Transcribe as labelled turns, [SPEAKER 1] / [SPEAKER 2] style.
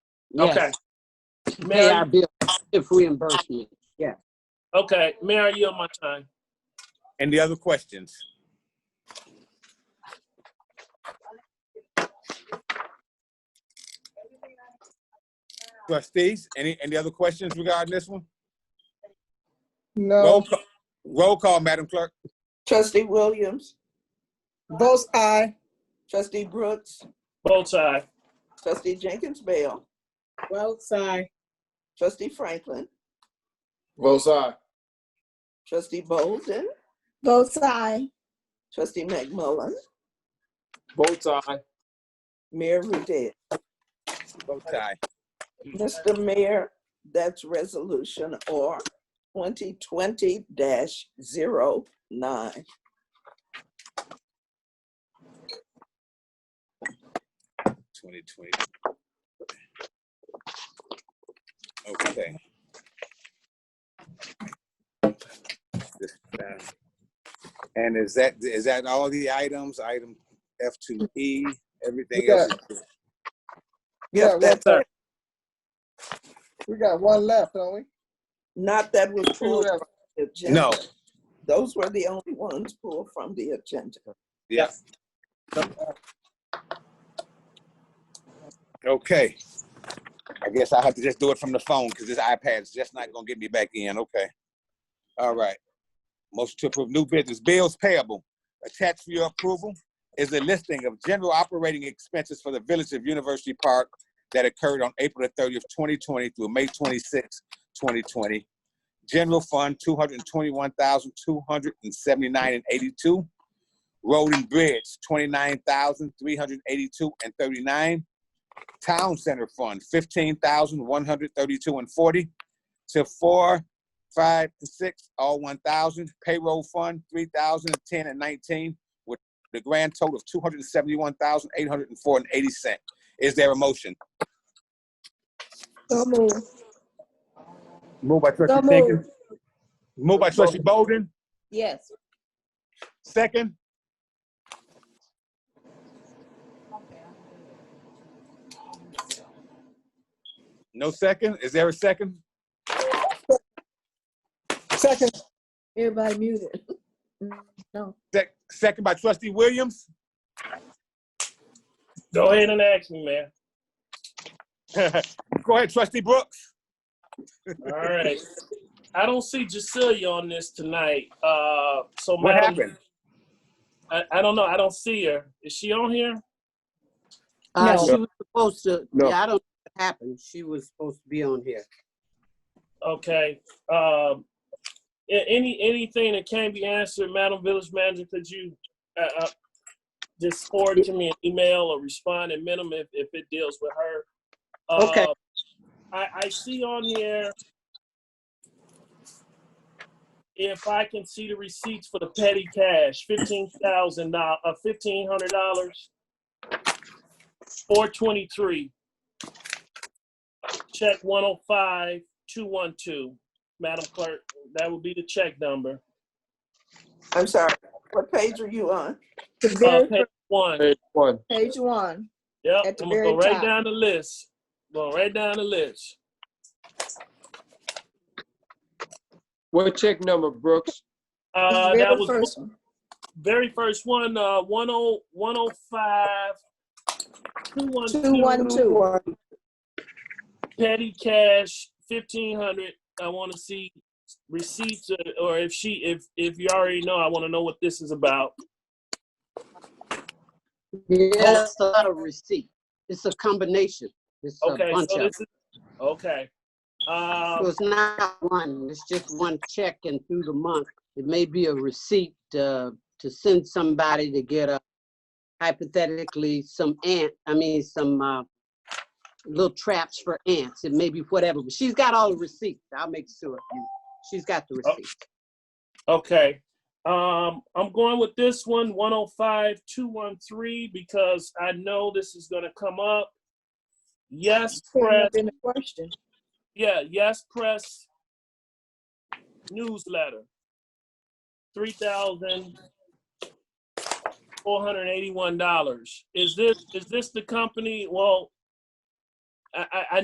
[SPEAKER 1] Okay.
[SPEAKER 2] Yes, pay
[SPEAKER 1] Mary,
[SPEAKER 2] our bill, if reimbursement. Yeah.
[SPEAKER 1] okay, Mary, you on my time.
[SPEAKER 3] Any other questions? Trustees, any, any other questions regarding this one? Roll
[SPEAKER 4] No.
[SPEAKER 3] ca- Roll call, Madam Clerk.
[SPEAKER 5] Trustee Williams,
[SPEAKER 4] Both aye.
[SPEAKER 5] trustee Brooks,
[SPEAKER 1] Both side.
[SPEAKER 5] trustee Jenkins Bell,
[SPEAKER 4] Both aye.
[SPEAKER 5] trustee Franklin,
[SPEAKER 6] Both sides.
[SPEAKER 5] trustee Bolden,
[SPEAKER 4] Both aye.
[SPEAKER 5] trustee McMullen,
[SPEAKER 6] Both sides.
[SPEAKER 5] Mayor Rudet.
[SPEAKER 3] Vote aye.
[SPEAKER 5] Mr. Mayor, that's resolution R twenty twenty 9
[SPEAKER 3] Twenty twenty. Okay. This time. And is that, is that all the items, item F two E, everything
[SPEAKER 4] Yeah.
[SPEAKER 3] else? is-
[SPEAKER 4] Yeah,
[SPEAKER 5] Yes, that's
[SPEAKER 1] sir.
[SPEAKER 4] We got one left, don't we?
[SPEAKER 5] Not that was pulled from the agenda.
[SPEAKER 3] No,
[SPEAKER 5] Those were the only ones pulled from the agenda.
[SPEAKER 3] yeah. Okay. I guess I have to just do it from the phone because this iPad's just not gonna get me back in, okay? All right. Motion to approve new business bills payable. Attached for your approval is a listing of general operating expenses for the Village of University Park that occurred on April the thirtieth, twenty twenty through May twenty-sixth, twenty twenty. General Fund, two hundred and twenty-one thousand, two hundred and seventy-nine and eighty-two. Road and Bridge, twenty-nine thousand, three hundred and eighty-two and thirty-nine. Town Center Fund, fifteen thousand, one hundred thirty-two and forty. To four, five, and six, all one thousand. Payroll Fund, three thousand, ten and nineteen, with the grand total of two hundred and seventy-one thousand, eight hundred and four and eighty cent. Is there a motion?
[SPEAKER 4] So move.
[SPEAKER 3] Moved by trustee Jenkins. Moved by trustee Bolden,
[SPEAKER 4] Yes.
[SPEAKER 3] second. No second? Is there a second?
[SPEAKER 4] Second.
[SPEAKER 7] Everybody muted. No.
[SPEAKER 3] Sec- Second by trustee Williams?
[SPEAKER 1] Go ahead and ask me, Mayor.
[SPEAKER 3] Go ahead, trustee Brooks.
[SPEAKER 1] All right. I don't see Jacilia on this tonight. Uh, so
[SPEAKER 3] What
[SPEAKER 1] Madam-
[SPEAKER 3] happened?
[SPEAKER 1] I, I don't know. I don't see her. Is she on here?
[SPEAKER 2] Uh,
[SPEAKER 4] No.
[SPEAKER 2] she was supposed to,
[SPEAKER 3] No.
[SPEAKER 2] yeah, I don't know what happened. She was supposed to be on here.
[SPEAKER 1] Okay. Um, a- any anything that can be answered, Madam Village Manager, could you uh, uh, just forward to me an email or respond at minimum if, if it deals with her? Uh,
[SPEAKER 2] Okay.
[SPEAKER 1] I, I see on here if I can see the receipts for the petty cash, fifteen thousand dollars, uh, fifteen hundred dollars, four twenty-three check 105 212. Madam Clerk, that would be the check number.
[SPEAKER 5] I'm sorry, what page are you on?
[SPEAKER 7] The
[SPEAKER 1] Uh,
[SPEAKER 7] very
[SPEAKER 1] page one.
[SPEAKER 6] Page one.
[SPEAKER 7] first page one.
[SPEAKER 1] Yep,
[SPEAKER 7] at the
[SPEAKER 1] I'm gonna go
[SPEAKER 7] very
[SPEAKER 1] right
[SPEAKER 7] top.
[SPEAKER 1] down the list. Go right down the list.
[SPEAKER 6] What check number, Brooks?
[SPEAKER 1] Uh,
[SPEAKER 7] The
[SPEAKER 1] that
[SPEAKER 7] very
[SPEAKER 1] was
[SPEAKER 7] first one.
[SPEAKER 1] very first one, uh, 10 105
[SPEAKER 7] Two, one,
[SPEAKER 1] 212
[SPEAKER 7] two.
[SPEAKER 1] petty cash 1500. I want to see receipts or- or if she if if you already know, I want to know what this is about.
[SPEAKER 2] Yeah, that's a lot of receipt. It's a combination. It's a
[SPEAKER 1] Okay,
[SPEAKER 2] bunch
[SPEAKER 1] so
[SPEAKER 2] of.
[SPEAKER 1] this is okay. Um,
[SPEAKER 2] So it's not one, it's just one check and through the month. It may be a receipt uh, to send somebody to get a hypothetically some ant, I mean, some uh, little traps for ants. It may be whatever, but she's got all the receipts. I'll make sure. you- She's got the
[SPEAKER 1] Oh.
[SPEAKER 2] receipt.
[SPEAKER 1] Okay. Um, I'm going with this one, 105 213, because I know this is going to come up. Yes,
[SPEAKER 7] Shouldn't
[SPEAKER 1] press.
[SPEAKER 7] have been a question.
[SPEAKER 1] Yeah, yes, press newsletter. 3,481 dollars. Is this is this the company? Well, I, I, I